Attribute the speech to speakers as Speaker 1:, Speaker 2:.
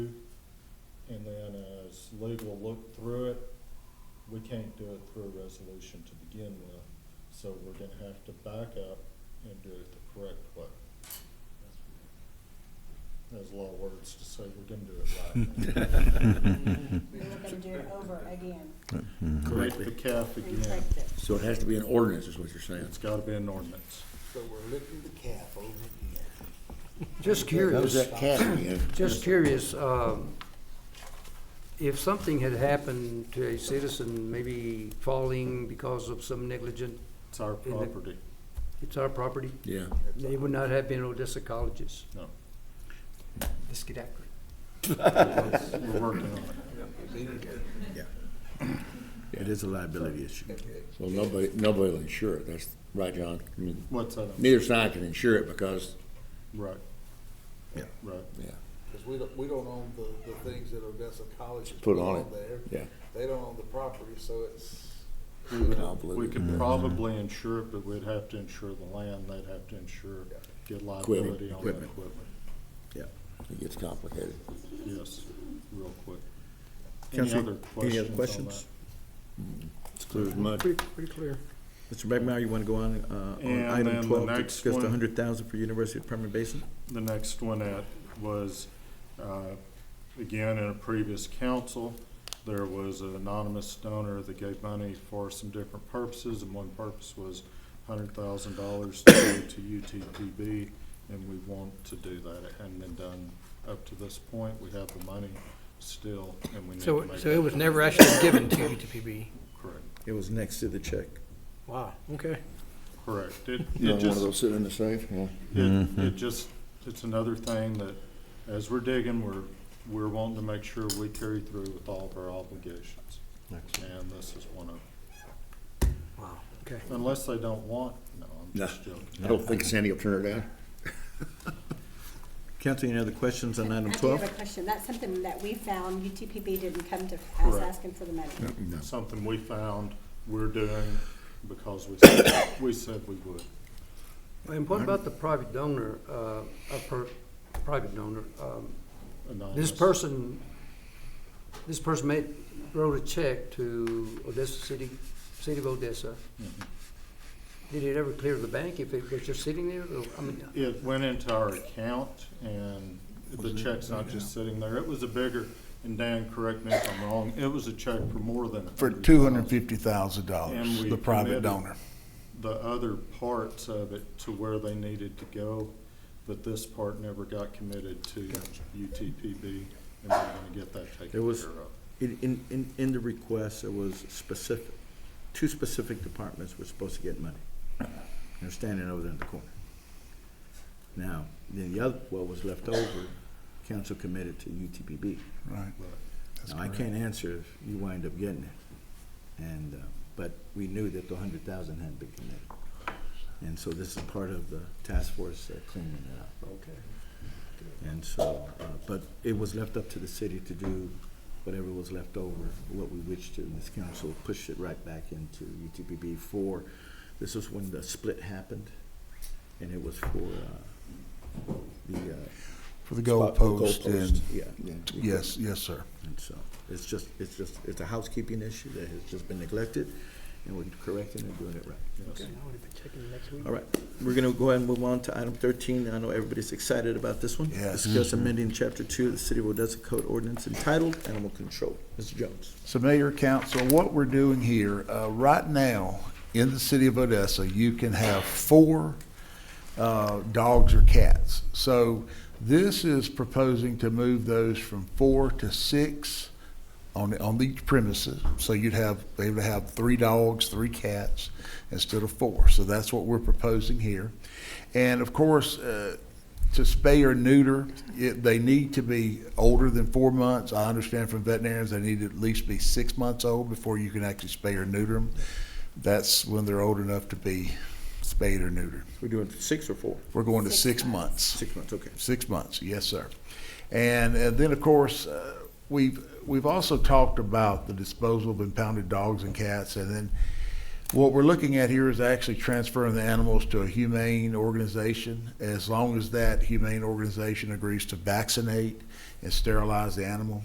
Speaker 1: legal looked through it, we can't do it through a resolution to begin with. So we're gonna have to back up and do it the correct way. There's a lot of words to say, we're gonna do it right.
Speaker 2: We were gonna do it over again.
Speaker 1: Correct the calf again.
Speaker 2: Retyped it.
Speaker 3: So it has to be an ordinance, is what you're saying?
Speaker 1: It's gotta be an ordinance.
Speaker 4: So we're looking the calf over again.
Speaker 5: Just
Speaker 3: How's
Speaker 5: curious,
Speaker 3: that cat again?
Speaker 5: just curious, um, if something had happened to a citizen, maybe falling because of some negligent,
Speaker 1: It's our
Speaker 5: In the-
Speaker 1: property.
Speaker 5: it's our property,
Speaker 3: Yeah.
Speaker 5: it would not have been Odessa College's.
Speaker 1: No,
Speaker 5: Let's get after it.
Speaker 1: we're working on it.
Speaker 3: It is a liability issue. Well, nobody, nobody will insure it, that's, right, John? I mean,
Speaker 1: What's that?
Speaker 3: Neither side can insure it because,
Speaker 1: Right.
Speaker 3: Yeah.
Speaker 1: Right.
Speaker 3: yeah,
Speaker 4: Because we don't, we don't own the, the things that Odessa College has
Speaker 3: Put on it.
Speaker 4: there.
Speaker 3: yeah.
Speaker 4: They don't own the property, so it's,
Speaker 1: We would,
Speaker 3: Convoluted.
Speaker 1: we could probably insure it, but we'd have to insure the land, they'd have to insure, get liability on the
Speaker 3: Equipment.
Speaker 1: equipment.
Speaker 3: Yeah. It gets complicated.
Speaker 1: Yes, real quick. Any
Speaker 6: Counselor,
Speaker 1: other
Speaker 6: any other
Speaker 1: questions
Speaker 3: It's clear as mud.
Speaker 6: Pretty, pretty clear. Mr. McNamara, you want to go on, uh, on
Speaker 1: And then
Speaker 6: item
Speaker 1: the
Speaker 6: twelve, to
Speaker 1: next
Speaker 6: discuss
Speaker 1: one.
Speaker 6: the hundred thousand for University of Permian Basin?
Speaker 1: on that? The next one at was, uh, again, in a previous council, there was an anonymous donor that gave money for some different purposes, and one purpose was hundred thousand dollars to go to UTPB, and we want to do that. It hadn't been done up to this point. We have the money still, and we need to
Speaker 7: So,
Speaker 1: make
Speaker 7: so it
Speaker 1: it
Speaker 7: was never actually given to UTPB?
Speaker 1: correct.
Speaker 6: It was next to the check.
Speaker 7: Wow, okay.
Speaker 1: Correct. It, it
Speaker 3: You know, one of
Speaker 1: just,
Speaker 3: those sitting in the safe, yeah.
Speaker 1: it,
Speaker 8: Mm-hmm.
Speaker 1: it just, it's another thing that, as we're digging, we're, we're wanting to make sure we carry through with all of our obligations. And this is one of,
Speaker 7: Wow, okay.
Speaker 1: unless they don't want, no, I'm
Speaker 3: No.
Speaker 1: just joking.
Speaker 3: I don't think Sandy will turn it down.
Speaker 6: Counsel, any other questions on item
Speaker 2: I do have
Speaker 6: twelve?
Speaker 2: a question. That's something that we found. UTPB didn't come to us
Speaker 1: Correct.
Speaker 2: asking for the money.
Speaker 1: Something we found we're doing because we said, we said we would.
Speaker 5: And what about the private donor, uh, a per, private donor, um, This
Speaker 1: Anonymous.
Speaker 5: person, this person made, wrote a check to Odessa City, City of Odessa.
Speaker 1: Mhm.
Speaker 5: Did it ever clear the bank if it was just sitting there? Or, I mean,
Speaker 1: It went into our account and the check's not just sitting there. It was a bigger, and Dan, correct me if I'm wrong, it was a check for more than.
Speaker 8: For two hundred and
Speaker 1: $250,000.
Speaker 8: fifty thousand dollars,
Speaker 1: And we
Speaker 8: Oh, the private
Speaker 1: committed
Speaker 8: donor.
Speaker 1: the other parts of it to where they needed to go, but this part never got committed to UTPB, and we're gonna get that
Speaker 6: There
Speaker 1: taken
Speaker 6: was-
Speaker 1: care of.
Speaker 6: In, in- in, in the request, there was specific, two specific departments were supposed to get money. They're standing over there in the corner. Now, then the other, what was left over, council committed to UTPB.
Speaker 8: Right. That's
Speaker 6: Now, I
Speaker 8: correct.
Speaker 6: can't answer if you wind up getting it. And, uh, but we knew that the hundred thousand hadn't been committed. And so this is part of the task force uh, cleaning it up. Okay. And so, uh, but it was left up to the city to do whatever was left over, what we wished to, and this council pushed it right back into UTPB for, this was when the split happened, and it was for, uh, the, uh.
Speaker 8: For the
Speaker 6: spot- the
Speaker 8: goalpost and,
Speaker 6: goalpost, Yeah.
Speaker 8: yes, yes, sir.
Speaker 6: And so, it's just, it's just, it's a housekeeping issue that has just been neglected, and we're correcting and doing it right.
Speaker 1: Yes.
Speaker 7: I would have been checking next week.
Speaker 6: All right, we're gonna go ahead and move on to item thirteen, I know everybody's excited about this one.
Speaker 8: Yes.
Speaker 6: Discuss amending chapter two of the City of Odessa Code ordinance entitled Animal Control. Mr. Jones.
Speaker 8: So Mayor, Council, what we're doing here, uh, right now, in the city of Odessa, you can have four uh, dogs or cats. So this is proposing to move those from four to six on, on each premises. So you'd have, they would have three dogs, three cats instead of four. So that's what we're proposing here. And of course, uh, to spay or neuter, it, they need to be older than four months. I understand from veterinarians, they need to at least be six months old before you can actually spay or neuter them. That's when they're old enough to be spayed or neutered.
Speaker 6: We're doing six or four?
Speaker 8: We're going to six months.
Speaker 6: Six months, okay.
Speaker 8: Six months, yes, sir. And, uh then, of course, uh, we've, we've also talked about the disposal of impounded dogs and cats. And then what we're looking at here is actually transferring the animals to a humane organization as long as that humane organization agrees to vaccinate and sterilize the animal.